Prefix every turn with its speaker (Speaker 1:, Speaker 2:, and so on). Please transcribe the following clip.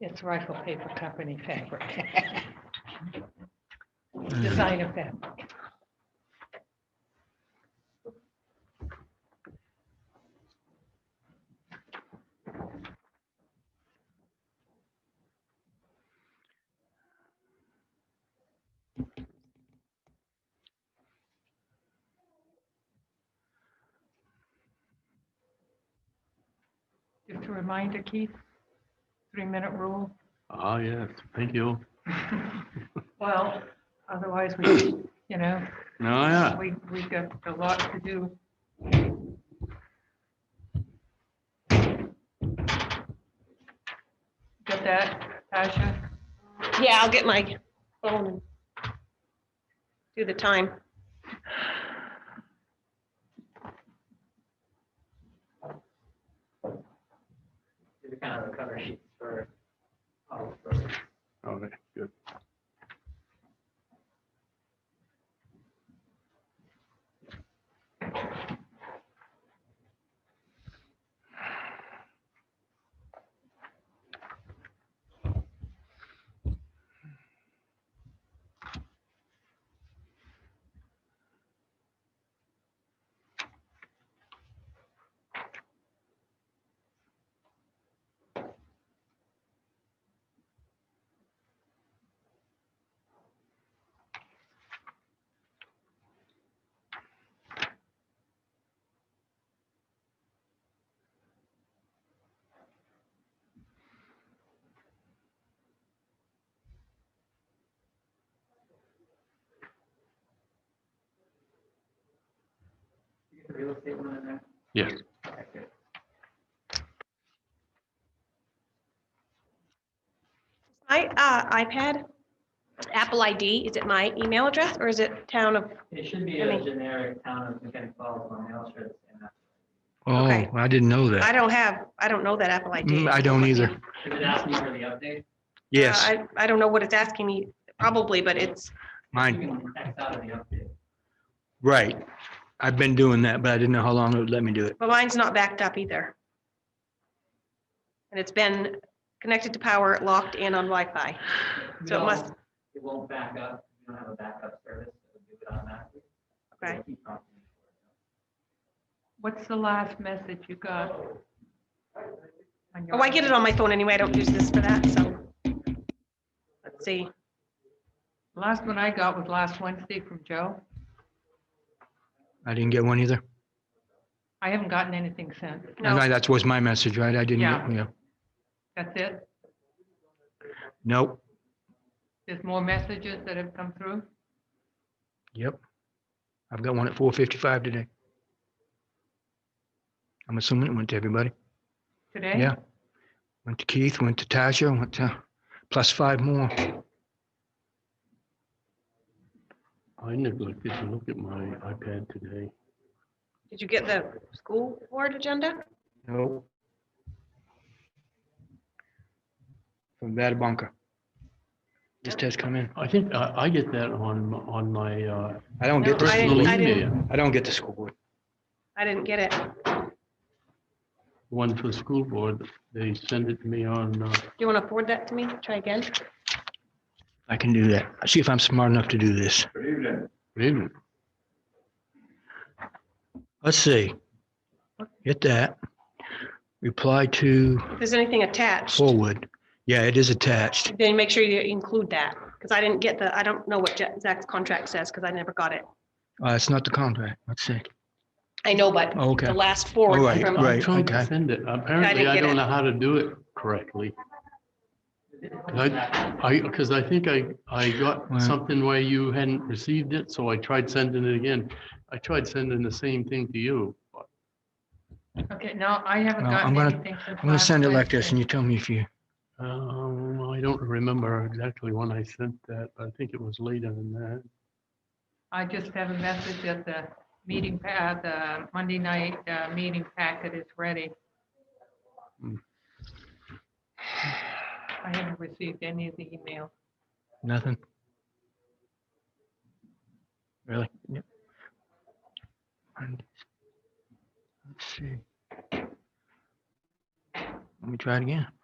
Speaker 1: It's Rifle Paper Company fabric.
Speaker 2: Mm.
Speaker 1: Designer fabric. Just a reminder, Keith, three-minute rule.
Speaker 2: Ah, yes, thank you.
Speaker 1: Well, otherwise we, you know,
Speaker 2: No, yeah,
Speaker 1: we, we've got a lot to do. Got that, Tasha?
Speaker 3: Yeah, I'll get my phone. and Do the time.
Speaker 4: These are kind of the cover sheets for, all of those.
Speaker 2: okay, good.
Speaker 4: You get the real estate one in there?
Speaker 2: Yes,
Speaker 4: Okay, good.
Speaker 3: My uh, iPad, Apple ID, is it my email address or is it town of,
Speaker 4: It should be
Speaker 3: I
Speaker 4: a
Speaker 3: mean-
Speaker 4: generic town of Mechanic Falls on the Elsford.
Speaker 2: oh,
Speaker 3: Okay.
Speaker 2: I didn't know
Speaker 3: I
Speaker 2: that.
Speaker 3: don't have, I don't know that Apple ID.
Speaker 2: Mm, I don't either.
Speaker 4: Is it asking for the update?
Speaker 2: Yes,
Speaker 3: I, I don't know what it's asking me, probably, but it's,
Speaker 2: mine,
Speaker 4: You can text out of the update.
Speaker 2: right. I've been doing that, but I didn't know how long it would let me do it.
Speaker 3: but mine's not backed up either. And it's been connected to power, locked and on Wi-Fi.
Speaker 4: You
Speaker 3: So it
Speaker 4: don't-
Speaker 3: must-
Speaker 4: It won't back up. You don't have a backup service. It'll do it automatically.
Speaker 3: Okay.
Speaker 4: It'll keep prompting you for it.
Speaker 1: What's the last message you got? on your
Speaker 3: Oh, I get it on my phone anyway. I don't use this for that, so. Let's see.
Speaker 1: Last one I got was last Wednesday from Joe.
Speaker 2: I didn't get one either.
Speaker 1: I haven't gotten anything since.
Speaker 2: I
Speaker 3: No.
Speaker 2: know That was my message, right? I didn't,
Speaker 1: Yeah.
Speaker 2: get- yeah.
Speaker 1: That's it?
Speaker 2: Nope,
Speaker 1: There's more messages that have come through?
Speaker 2: yep. I've got one at four fifty-five today. I'm assuming it went to everybody.
Speaker 1: Today?
Speaker 2: Yeah. Went to Keith, went to Tasha, went to, plus five more.
Speaker 5: I neglected to look at my iPad today.
Speaker 3: Did you get the school board agenda?
Speaker 2: No. From Vatabanca. Just has come in.
Speaker 5: I think I, I get that on, m- on my uh,
Speaker 2: I don't
Speaker 3: No,
Speaker 2: get, the
Speaker 3: I
Speaker 5: personal
Speaker 2: school-
Speaker 3: I didn't-
Speaker 5: email,
Speaker 2: I don't get the school board.
Speaker 3: I didn't get it.
Speaker 5: one for the school board. They send it to me on, uh,
Speaker 3: Do you want to forward that to me? Try again.
Speaker 2: I can do that. See if I'm smart enough to do this.
Speaker 5: really?
Speaker 2: Let's see. Get that. Reply to
Speaker 3: If there's anything attached,
Speaker 2: forward. Yeah, it is attached.
Speaker 3: then make sure you include that, because I didn't get the, I don't know what Ja- Zach's contract says, because I never got it.
Speaker 2: Uh, it's not the contract. Let's see. Oh,
Speaker 3: I know, but
Speaker 2: Okay.
Speaker 3: the last
Speaker 2: All
Speaker 3: forward
Speaker 2: right,
Speaker 3: from,
Speaker 2: right.
Speaker 5: I tried
Speaker 2: okay.
Speaker 5: to send it. Apparently, I
Speaker 3: get it.
Speaker 5: don't know how to do it correctly. 'Cause I, I, because I think I, I
Speaker 2: Right.
Speaker 5: got something where you hadn't received it, so I tried sending it again. I tried sending the same thing to you. but
Speaker 1: Okay, no, I haven't
Speaker 2: Well,
Speaker 1: gotten
Speaker 2: I'm gonna-
Speaker 1: anything since.
Speaker 2: I'm gonna
Speaker 1: last
Speaker 2: send it like this
Speaker 1: Wednesday.
Speaker 2: and you tell me if you,
Speaker 5: Um, I don't remember exactly when I sent that. but I think it was later than that.
Speaker 1: I just have a message that the meeting, pa- uh, the Monday night uh, meeting packet is ready.
Speaker 5: Hmm.
Speaker 1: I haven't received any of the email.
Speaker 2: nothing. Really? Yep. And- Let's see. Let me try it again.